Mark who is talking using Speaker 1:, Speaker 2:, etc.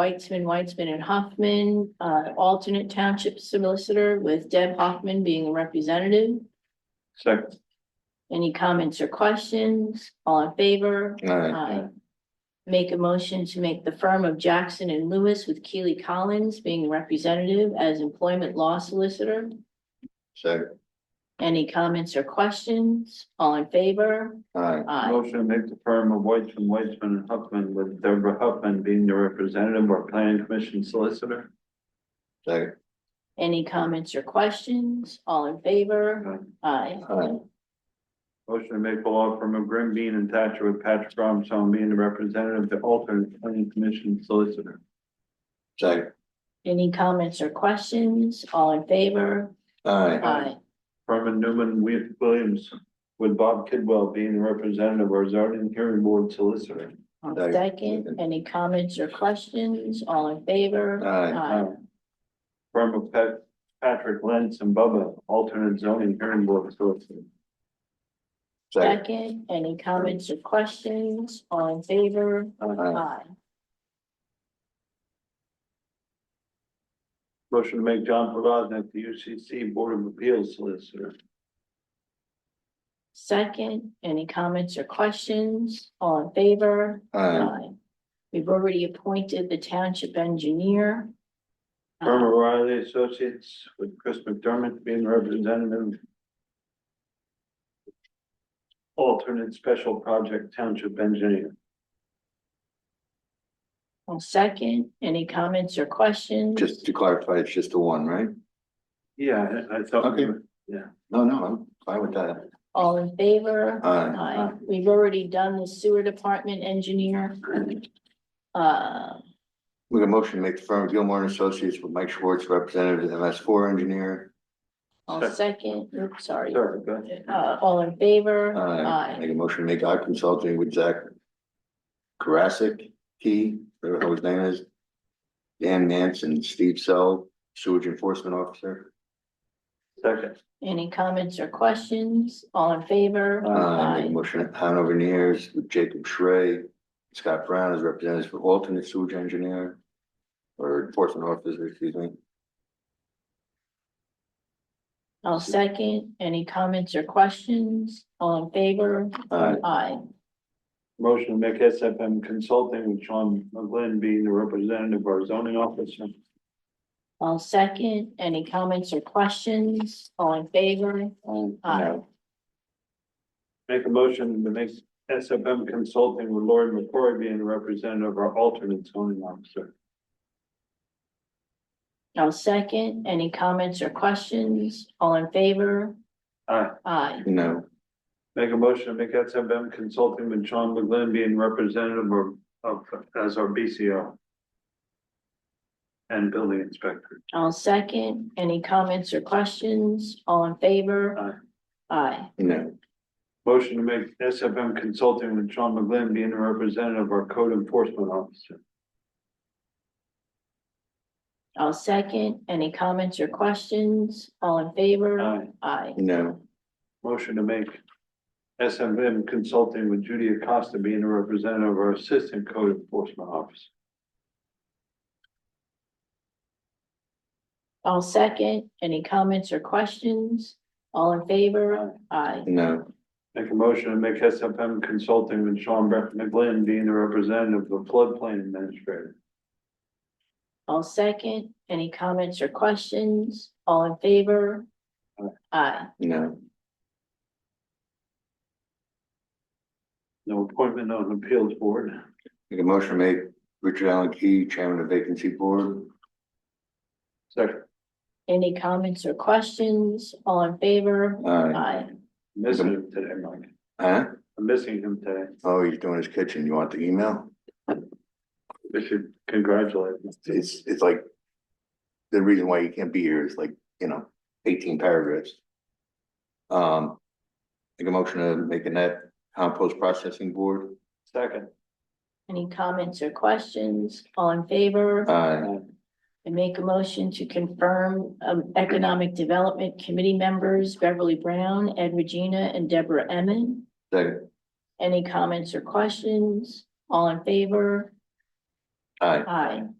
Speaker 1: Weitzman, Weitzman and Hoffman, uh, alternate township solicitor with Deb Hoffman being a representative.
Speaker 2: Second.
Speaker 1: Any comments or questions? All in favor? Aye. Make a motion to make the firm of Jackson and Lewis with Keely Collins being representative as employment law solicitor.
Speaker 2: Second.
Speaker 1: Any comments or questions? All in favor?
Speaker 2: Aye.
Speaker 1: Aye.
Speaker 3: Motion to make the firm of Whiteman, Whiteman and Huffman with Deborah Huffman being the representative or planning commission solicitor.
Speaker 2: Second.
Speaker 1: Any comments or questions? All in favor? Aye.
Speaker 2: Aye.
Speaker 3: Motion to make the law firm of Grim Bean and Thatcher with Patrick Robinson being the representative, the alternate planning commission solicitor.
Speaker 2: Second.
Speaker 1: Any comments or questions? All in favor?
Speaker 2: Aye.
Speaker 1: Aye.
Speaker 3: Firm of Newman Wi- Williams with Bob Kidwell being the representative or zoning hearing board solicitor.
Speaker 1: I'll
Speaker 2: Aye.
Speaker 1: Second, any comments or questions? All in favor?
Speaker 2: Aye.
Speaker 3: Um, Firm of Pat, Patrick Lentz and Bubba, alternate zoning hearing board solicitor.
Speaker 2: Second.
Speaker 1: Second, any comments or questions? All in favor?
Speaker 2: Aye.
Speaker 1: Aye.
Speaker 3: Motion to make John Provaznik the UCC Board of Appeals Solicitor.
Speaker 1: Second, any comments or questions? All in favor?
Speaker 2: Aye.
Speaker 1: Aye. We've already appointed the township engineer. Uh,
Speaker 3: Irma Riley Associates with Chris McDermott being representative. Alternate Special Project Township Engineer.
Speaker 1: I'll second, any comments or questions?
Speaker 2: Just to clarify, it's just the one, right?
Speaker 3: Yeah, I- I thought.
Speaker 2: Okay. No, no, I'm fine with that.
Speaker 1: All in favor?
Speaker 2: Aye.
Speaker 1: Aye. We've already done the sewer department engineer. Uh,
Speaker 2: We got a motion to make the firm of Gilmore and Associates with Mike Schwartz, representative MS four engineer.
Speaker 1: I'll second, oops, sorry.
Speaker 3: Sorry, go ahead.
Speaker 1: Uh, all in favor?
Speaker 2: Aye. Make a motion to make I consulting with Zach. Karasik, Key, whatever the hell his name is. Dan Nance and Steve Sell, sewage enforcement officer.
Speaker 3: Second,
Speaker 1: Any comments or questions? All in favor?
Speaker 2: Uh, make a motion at Hanover Nears with Jacob Schrey, Scott Brown as representatives for alternate sewage engineer. Or enforcement officer, excuse me.
Speaker 1: I'll second. Any comments or questions? All in favor?
Speaker 2: Aye.
Speaker 1: Aye.
Speaker 3: motion to make SFM Consulting with Sean McGlynn being the representative or zoning officer.
Speaker 1: I'll second. Any comments or questions? All in favor? Aye.
Speaker 3: Um, Make a motion to make SFM Consulting with Lord McCory being the representative or alternate zoning officer.
Speaker 1: I'll second. Any comments or questions? All in favor?
Speaker 3: Aye.
Speaker 1: Aye.
Speaker 2: No,
Speaker 3: Make a motion to make SFM Consulting with Sean McGlynn being representative or of as our BCO. And building inspector.
Speaker 1: I'll second. Any comments or questions? All in favor? Aye.
Speaker 2: no,
Speaker 3: Motion to make SFM Consulting with Sean McGlynn being the representative or code enforcement officer.
Speaker 1: I'll second. Any comments or questions? All in favor?
Speaker 3: Aye.
Speaker 1: Aye.
Speaker 2: no,
Speaker 3: Motion to make SFM Consulting with Judy Acosta being the representative or assistant code enforcement officer.
Speaker 1: I'll second. Any comments or questions? All in favor? Aye.
Speaker 2: no,
Speaker 3: Make a motion to make SFM Consulting with Sean Brett McGlynn being the representative of the floodplain administrator.
Speaker 1: I'll second. Any comments or questions? All in favor? Aye.
Speaker 2: no.
Speaker 3: No appointment on appeals board.
Speaker 2: Make a motion to make Richard Allen Key, chairman of vacancy board.
Speaker 3: Second,
Speaker 1: Any comments or questions? All in favor?
Speaker 2: Aye.
Speaker 1: Aye.
Speaker 3: missing him today, Mike.
Speaker 2: Uh, Huh?
Speaker 3: I'm missing him today.
Speaker 2: Oh, he's doing his kitchen. You want the email?
Speaker 3: We should congratulate him.
Speaker 2: It's, it's like. The reason why you can't be here is like, you know, eighteen paragraphs. Um. Make a motion to make a net compost processing board.
Speaker 3: Second,
Speaker 1: Any comments or questions? All in favor?
Speaker 2: Aye.
Speaker 1: I make a motion to confirm um, Economic Development Committee members Beverly Brown, Ed Regina, and Deborah Emmon.
Speaker 2: Second.
Speaker 1: Any comments or questions? All in favor?
Speaker 2: Aye.
Speaker 1: Aye.